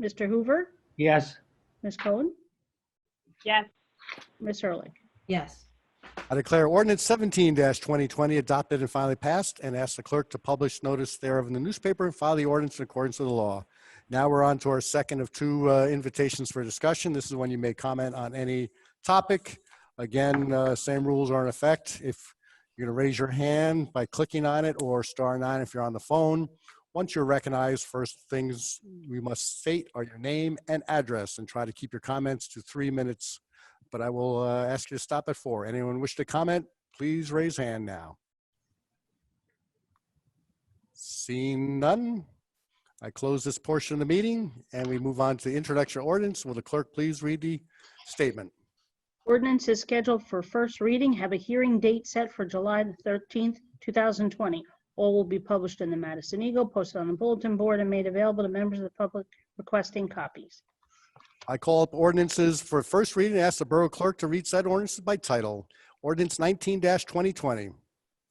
Mr. Hoover, Yes. Ms. Cohen, Yes. Ms. Hurlick. Yes. I declare ordinance seventeen twenty twenty adopted and finally passed and ask the clerk to publish notice thereof in the newspaper and file the ordinance in accordance with the law. Now we're on to our second of two uh, invitations for discussion. This is when you may comment on any topic. Again, uh, same rules are in effect. If you're going to raise your hand by clicking on it or star nine if you're on the phone. Once you're recognized, first things we must state are your name and address and try to keep your comments to three minutes but I will uh, ask you to stop at four. Anyone wish to comment, please raise hand now. Seeing none, I close this portion of the meeting and we move on to the introduction ordinance. Will the clerk please read the statement? Ordinance is scheduled for first reading. Have a hearing date set for July the 13th, 2020. All will be published in the Madison Eagle, posted on the bulletin board, and made available to members of the public requesting copies. I call up ordinances for first reading and ask the borough clerk to read said ordinances by title. Ordinance nineteen twenty twenty.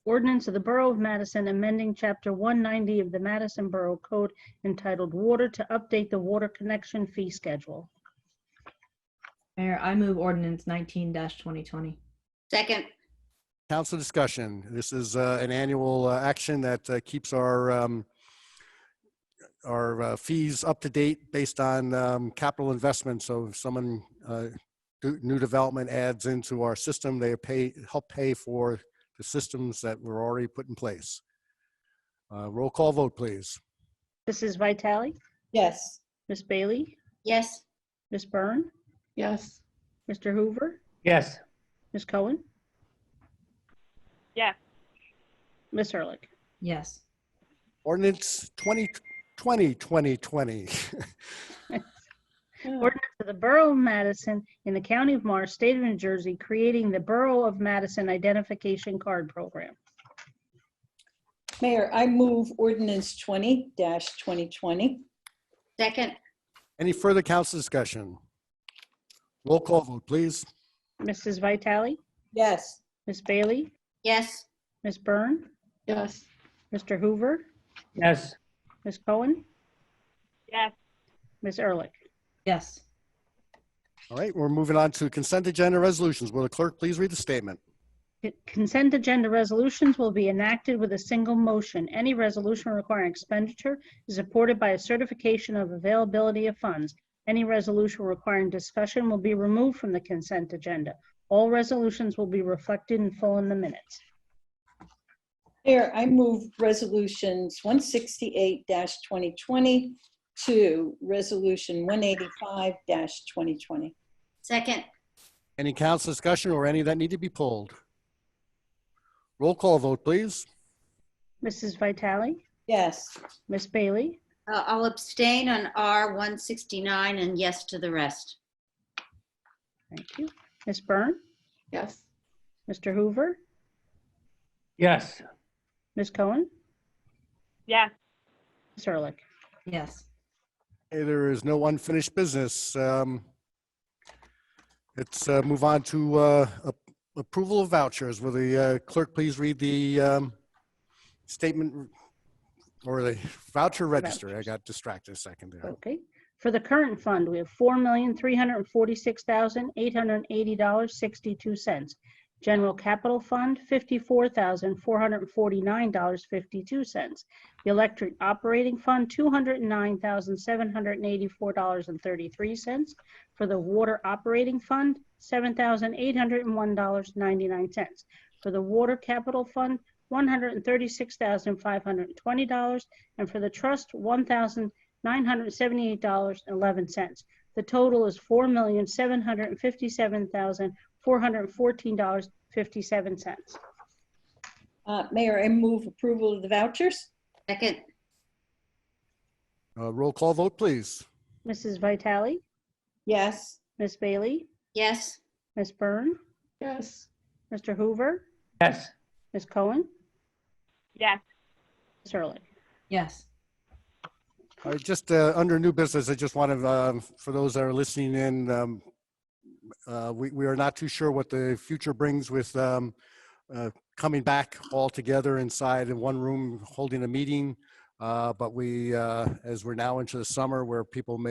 Ordinance of the Borough of Madison amending Chapter 190 of the Madison Borough Code entitled Water to update the water connection fee schedule. Mayor, I move ordinance nineteen twenty twenty. Second. Council discussion. This is uh, an annual uh, action that uh, keeps our, um, our uh, fees up to date based on um, capital investment. So if someone, uh, do- new development adds into our system, they pay, help pay for the systems that were already put in place. Uh, Roll call vote, please. Mrs. Vitale, Yes. Miss Bailey, Yes. Miss Byrne, Yes. Mr. Hoover, Yes. Ms. Cohen? Yes. Ms. Ehrlich? Yes. Ordinance 2020, 2020. Ordinance of the Borough of Madison in the County of Morris, State of New Jersey, creating the Borough of Madison Identification Card Program. Mayor, I move ordinance twenty twenty twenty. Second. Any further council discussion? Roll call vote, please. Mrs. Vitale, Yes. Miss Bailey, Yes. Miss Byrne, Yes. Mr. Hoover, Yes. Ms. Cohen, Yes. Ms. Ehrlich. Yes. All right, we're moving on to consent agenda resolutions. Will the clerk please read the statement? Consent agenda resolutions will be enacted with a single motion. Any resolution requiring expenditure is supported by a certification of availability of funds. Any resolution requiring discussion will be removed from the consent agenda. All resolutions will be reflected in full in the minutes. Mayor, I move resolutions one sixty-eight twenty twenty to resolution one eighty-five twenty twenty. Second. Any council discussion or any that need to be pulled? Roll call vote, please. Mrs. Vitale? Yes. Miss Bailey, Uh, I'll abstain on R 169 and yes to the rest. thank you. Miss Byrne, Yes. Mr. Hoover, Yes. Miss Cohen, Yes. Ms. Ehrlich. Yes. Hey, There is no unfinished business. Um, Let's uh, move on to uh, ap- approval of vouchers. Will the uh, clerk please read the um, statement or the voucher register? I got distracted a second there. Okay. For the current fund, we have $4,346,880.62. General Capital Fund, $54,449.52. The Electric Operating Fund, $209,784.33. For the Water Operating Fund, $7,801.99. For the Water Capital Fund, $136,520. And for the Trust, 1000 $978.11. The total is $4,757,414.57. Uh, Mayor, I move approval of the vouchers. Second, Uh, Roll call vote, please. Mrs. Vitale, Yes. Miss Bailey, yes. Miss Byrne, Yes. Mr. Hoover, Yes. Miss Cohen, Yes. Ms. Ehrlich. Yes. All right, just uh, under new business, I just want to, for those that are listening in, um, uh, we we are not too sure what the future brings with um, uh, coming back all together inside in one room, holding a meeting. Uh, But we, uh, as we're now into the summer where people may